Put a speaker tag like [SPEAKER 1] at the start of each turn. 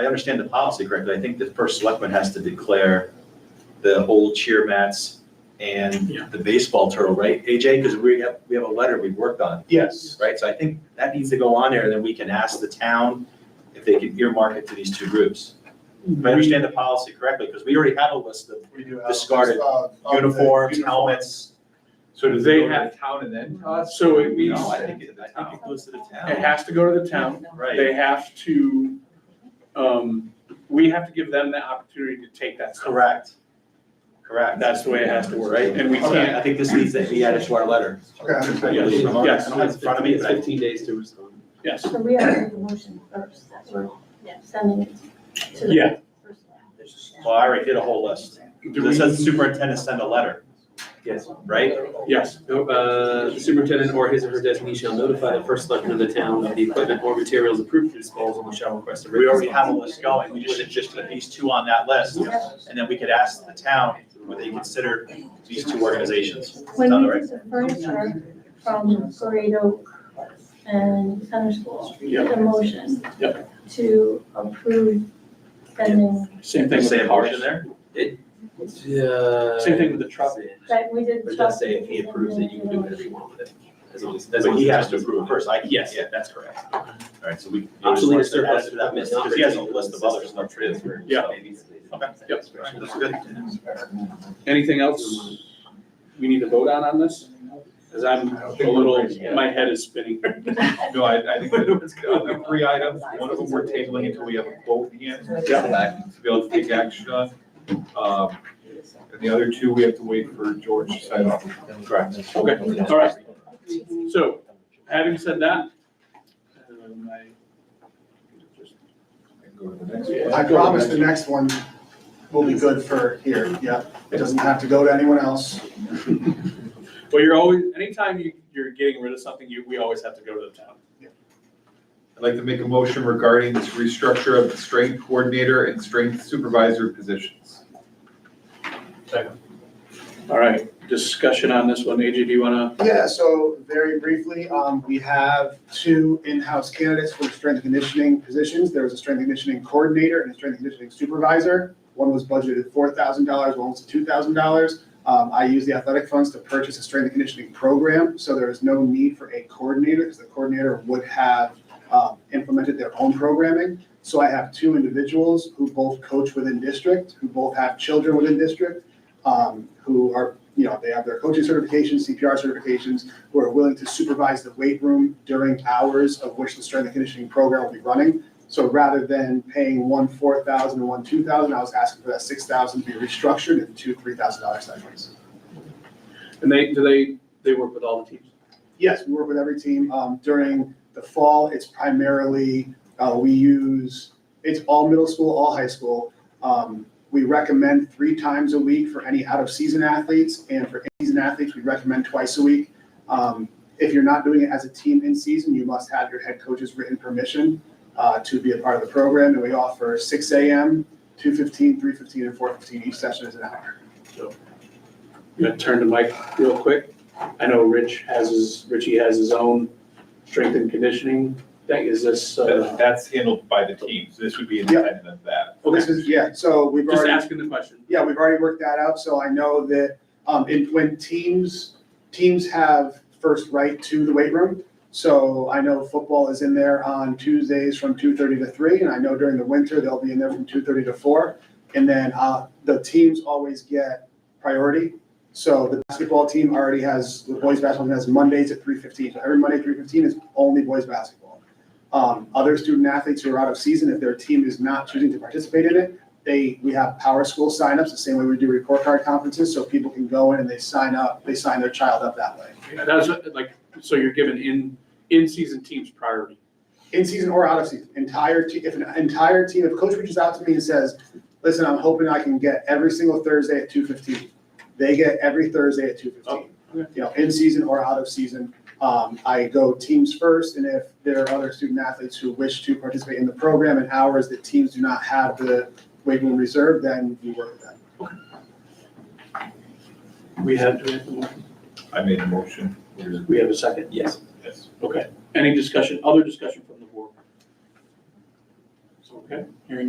[SPEAKER 1] I understand the policy correctly, I think the first selectman has to declare the old cheer mats and
[SPEAKER 2] Yeah.
[SPEAKER 1] the baseball turtle, right, AJ? Because we have, we have a letter we've worked on,
[SPEAKER 3] Yes.
[SPEAKER 1] right? So I think that needs to go on there, and then we can ask the town if they can earmark it to these two groups. If I understand the policy correctly, because we already have a list of
[SPEAKER 3] We do have.
[SPEAKER 1] Discarded
[SPEAKER 3] of- of the
[SPEAKER 1] uniforms, helmets.
[SPEAKER 4] So do they have town and then us? So it means
[SPEAKER 1] No, I think it, I think it goes to the
[SPEAKER 4] it
[SPEAKER 1] town,
[SPEAKER 4] has to go to the town.
[SPEAKER 1] right?
[SPEAKER 4] They have to, um, we have to give them the opportunity to take that stuff.
[SPEAKER 1] Correct. Correct.
[SPEAKER 4] That's the way it has to work,
[SPEAKER 1] Right?
[SPEAKER 4] and we
[SPEAKER 3] Okay.
[SPEAKER 4] can't,
[SPEAKER 1] I think this needs to be added to our letter.
[SPEAKER 3] Okay, I understand.
[SPEAKER 4] Yes, yes.
[SPEAKER 1] I don't have it in front of me, but I
[SPEAKER 5] Fifteen days to respond.
[SPEAKER 4] yes,
[SPEAKER 6] So we have to make a motion first, that we're sending it to the.
[SPEAKER 4] Yeah.
[SPEAKER 6] first one.
[SPEAKER 1] Well, I already did a whole list.
[SPEAKER 4] do
[SPEAKER 1] This
[SPEAKER 4] we,
[SPEAKER 1] says superintendent send a letter,
[SPEAKER 5] Yes.
[SPEAKER 1] right?
[SPEAKER 4] yes,
[SPEAKER 5] No, uh, the superintendent or his or her designee shall notify the first selectman of the town of the equipment or materials approved for disposal and shall request a
[SPEAKER 1] We
[SPEAKER 5] written.
[SPEAKER 1] already have a list going. We just, just put these two on that list. And then we could ask the town would they consider these two organizations.
[SPEAKER 6] When
[SPEAKER 1] Sound
[SPEAKER 6] we
[SPEAKER 1] right?
[SPEAKER 6] did the furniture from Great Oak and Center School, we did a motion to approve sending,
[SPEAKER 4] same thing.
[SPEAKER 1] They
[SPEAKER 4] with
[SPEAKER 1] say
[SPEAKER 4] the
[SPEAKER 1] a motion there?
[SPEAKER 5] Yeah.
[SPEAKER 4] Same thing with the truck.
[SPEAKER 6] that we did.
[SPEAKER 5] But it does say if he approves it, you can do whatever you want with it, as long as, as long
[SPEAKER 1] But
[SPEAKER 5] as.
[SPEAKER 1] he has to approve first. I,
[SPEAKER 5] Yes.
[SPEAKER 1] yes, yeah, that's correct. All right, so we.
[SPEAKER 5] Obsolete
[SPEAKER 1] Add
[SPEAKER 5] is
[SPEAKER 1] it to
[SPEAKER 5] surplus.
[SPEAKER 1] that list, Because he has a list of other stuff. too.
[SPEAKER 4] Yeah.
[SPEAKER 1] Okay.
[SPEAKER 4] Yep.
[SPEAKER 1] That's good.
[SPEAKER 4] Anything else we need to vote on on this? Cause I'm a little, my head is spinning.
[SPEAKER 2] No, I, I think that
[SPEAKER 4] What's
[SPEAKER 2] of
[SPEAKER 4] going
[SPEAKER 2] the
[SPEAKER 4] on?
[SPEAKER 2] three items, one of them we're tabling until we have a quote in hand
[SPEAKER 4] Yeah.
[SPEAKER 2] to be able to take action on. Um, And the other two, we have to wait for George to sign off.
[SPEAKER 1] Correct.
[SPEAKER 4] Okay, all right. So, having said that, um, I
[SPEAKER 3] I promise the next one will be good for here, yeah. It doesn't have to go to anyone else.
[SPEAKER 4] Well, you're always, anytime you, you're getting rid of something, you, we always have to go to the town.
[SPEAKER 2] I'd like to make a motion regarding this restructure of the strength coordinator and strength supervisor positions.
[SPEAKER 4] All right, discussion on this one. AJ, do you wanna?
[SPEAKER 3] Yeah, so very briefly, um, we have two in-house candidates for strength and conditioning positions. There was a strength and conditioning coordinator and a strength and conditioning supervisor. One was budgeted four thousand dollars, one was two thousand dollars. Um, I used the athletic funds to purchase a strength and conditioning program, so there is no need for a coordinator because the coordinator would have, um, implemented their own programming. So I have two individuals who both coach within district, who both have children within district, um, who are, you know, they have their coaching certifications, CPR certifications, who are willing to supervise the weight room during hours of which the strength and conditioning program will be running. So rather than paying one four thousand and one two thousand, I was asking for that six thousand to be restructured into two three thousand dollar segments.
[SPEAKER 4] And they, do they, they work with all the teams?
[SPEAKER 3] Yes, we work with every team. Um, during the fall, it's primarily, uh, we use, it's all middle school, all high school. Um, we recommend three times a week for any out-of-season athletes, and for in-season athletes, we recommend twice a week. Um, if you're not doing it as a team in season, you must have your head coach's written permission, uh, to be a part of the program, and we offer six AM, 2:15, 3:15, and four fifteen. Each session is an hour.
[SPEAKER 4] I'm gonna turn to Mike real quick. I know Rich has his, Richie has his own strength and conditioning thing. Is this,
[SPEAKER 2] That-
[SPEAKER 4] uh,
[SPEAKER 2] That's handled by the teams. This would be independent of that.
[SPEAKER 3] Well, this is, yeah, so we've
[SPEAKER 4] just
[SPEAKER 3] already.
[SPEAKER 4] asking the question.
[SPEAKER 3] Yeah, we've already worked that out, so I know that, um, and when teams, teams have first right to the weight room. So I know football is in there on Tuesdays from two thirty to three, and I know during the winter, they'll be in there from two thirty to four. And then, uh, the teams always get priority. So the basketball team already has, the boys' basketball team has Mondays at three fifteen, so every Monday, three fifteen is only boys' basketball. Um, other student athletes who are out of season, if their team is not choosing to participate in it, they, we have power school signups, the same way we do report card conferences, so people can go in and they sign up, they sign their child up that way.
[SPEAKER 4] That's what- like, so you're giving in, in-season teams priority.
[SPEAKER 3] In season or out of season, entire, te- if an entire team, if coach reaches out to me and says, listen, I'm hoping I can get every single Thursday at two fifteen. They get every Thursday at two fifteen,
[SPEAKER 4] Oh, okay.
[SPEAKER 3] you know, in season or out of season. Um, I go teams first, and if there are other student athletes who wish to participate in the program and hours that teams do not have the weight room reserve, then we work with them.
[SPEAKER 4] We have, do we have the motion?
[SPEAKER 2] I made a motion.
[SPEAKER 4] we have a second?
[SPEAKER 5] Yes.
[SPEAKER 2] Yes.
[SPEAKER 4] Okay. Any discussion, other discussion from the board? Okay, hearing none.